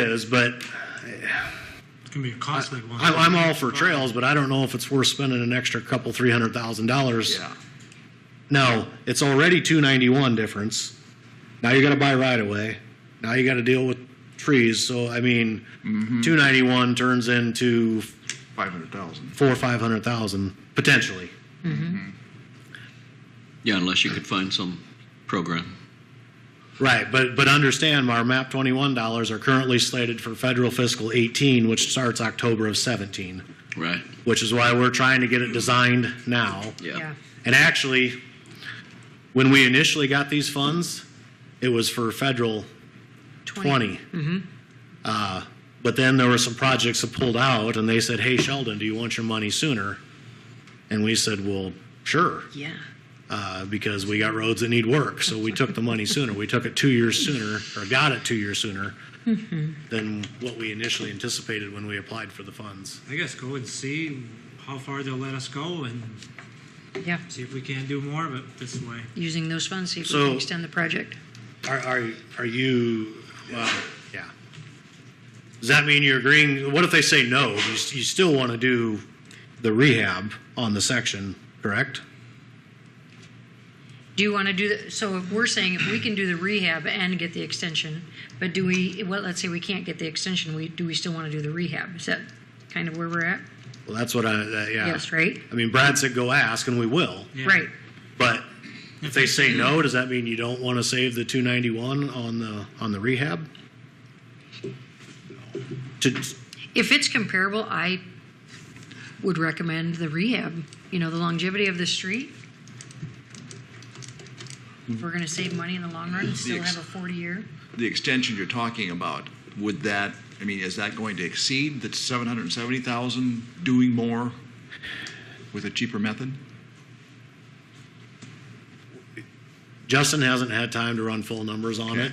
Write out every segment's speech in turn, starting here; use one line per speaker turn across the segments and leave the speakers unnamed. is, but
It's going to be a costly one.
I, I'm all for trails, but I don't know if it's worth spending an extra couple, three hundred thousand dollars.
Yeah.
No, it's already two ninety-one difference. Now you gotta buy right away. Now you gotta deal with trees, so I mean, two ninety-one turns into
Five hundred thousand.
four, or five hundred thousand, potentially.
Yeah, unless you could find some program.
Right, but, but understand, our MAP twenty-one dollars are currently slated for federal fiscal eighteen, which starts October of seventeen,
Right.
which is why we're trying to get it designed now.
Yeah.
And actually, when we initially got these funds, it was for federal 20. Uh, But then there were some projects that pulled out, and they said, hey, Sheldon, do you want your money sooner? And we said, well, sure,
Yeah.
uh, because we got roads that need work. So we took the money sooner. We took it two years sooner, or got it two years sooner than what we initially anticipated when we applied for the funds.
I guess go and see how far they'll let us go and
Yeah.
see if we can't do more of it this way.
Using those funds, see if we
So-
can extend the project.
Are, are, are you, well, yeah. Does that mean you're agreeing, what if they say no? You, s- you still want to do the rehab on the section, correct?
Do you want to do that? So if we're saying if we can do the rehab and get the extension, but do we, well, let's say we can't get the extension, we, do we still want to do the rehab? Is that kind of where we're at?
Well, that's what I, uh, yeah.
Yes, right?
I mean, Brad said go ask, and we will,
Yeah.
Right.
but if they say no, does that mean you don't want to save the two ninety-one on the, on the rehab? To,
If it's comparable, I would recommend the rehab, you know, the longevity of the street. If We're going to save money in the long run, still
ex-
have a 40-year.
The extension you're talking about, would that, I mean, is that going to exceed the seven hundred and seventy thousand doing more with a cheaper method?
Justin hasn't had time to run full numbers on
Okay.
it.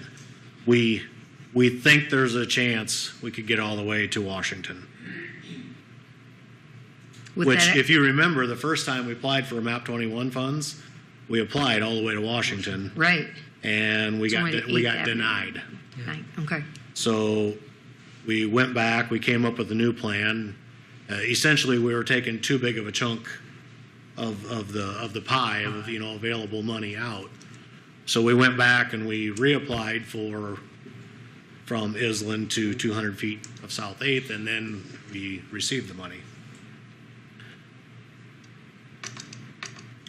We, we think there's a chance we could get all the way to Washington.
with
Which,
that-
if you remember, the first time we applied for MAP 21 funds, we applied all the way to Washington,
Right.
and we
It's
got,
only
de- we
eight
got
avenue.
denied.
Right, Okay.
So we went back, we came up with a new plan. Uh, Essentially, we were taking too big of a chunk of, of the, of the pie of, you know, available money out. So we went back and we reapplied for, from Island to 200 feet of South Eighth, and then we received the money.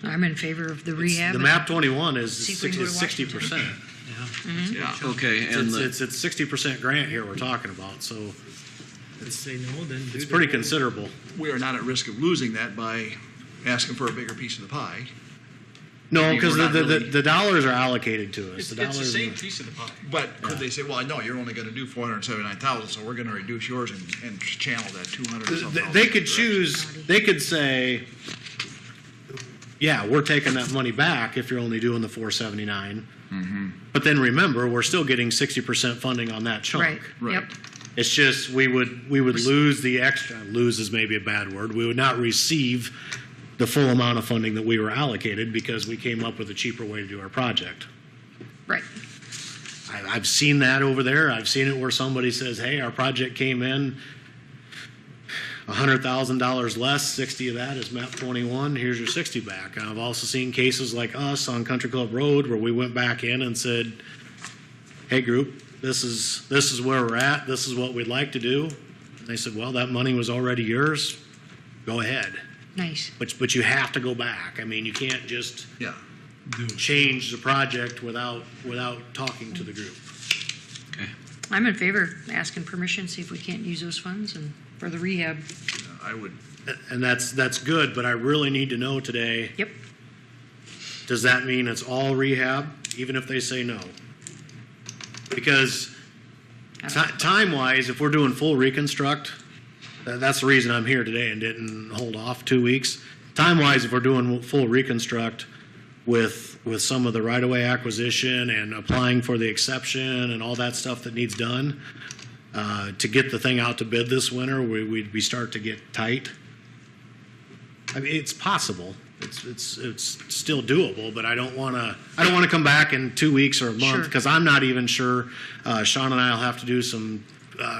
I'm in favor of the rehab.
The map 21
See
is
if we can go to
60 percent.
Mm-hmm.
Yeah.
Okay, and
It's,
the,
it's, it's 60 percent grant here we're talking about, so
If they say no, then do
it's
the-
pretty considerable.
We are not at risk of losing that by asking for a bigger piece of the pie.
No,
mean,
because
we're
the,
not
the,
really-
the dollars are allocated to us.
It's,
The
it's the
dollars.
same
are-
piece of the pie.
But could they say, well, no, you're only going to do four hundred and seventy-nine thousand, so we're going to reduce yours and, and channel that two hundred or
Th-
something?
They could choose, they could say, yeah, we're taking that money back if you're only doing the four seventy-nine.
Mm-hmm.
But then remember, we're still getting sixty percent funding on that chunk.
Right, yep.
Right.
It's just, we would, we would lose the extra, lose is maybe a bad word, we would not receive the full amount of funding that we were allocated because we came up with a cheaper way to do our project.
Right.
I, I've seen that over there. I've seen it where somebody says, "Hey, our project came in hundred thousand dollars less. Sixty of that is MAP twenty-one. Here's your sixty back." And I've also seen cases like us on Country Club Road where we went back in and said, "Hey, group, this is this is where we're at. This is what we'd like to do." And they said, "Well, that money was already yours. Go ahead."
Nice.
But but you have to go back. I mean, you can't just
Yeah.
change the project without without talking to the group.
okay.
I'm in favor of asking permission, see if we can't use those funds and for the rehab.
I would,
And that's, that's good, but I really need to know today,
Yep.
does that mean it's all rehab, even if they say no? Because ti- time-wise, if we're doing full reconstruct, tha- that's the reason I'm here today and didn't hold off two weeks. Time-wise, if we're doing full reconstruct with, with some of the right-of-way acquisition and applying for the exception and all that stuff that needs done, uh, to get the thing out to bid this winter, we, we'd, we start to get tight. I mean, it's possible. It's, it's, it's still doable, but I don't want to, I don't want to come back in two weeks or a
Sure.
month because I'm not even sure. Uh, Sean and I will have to do some uh,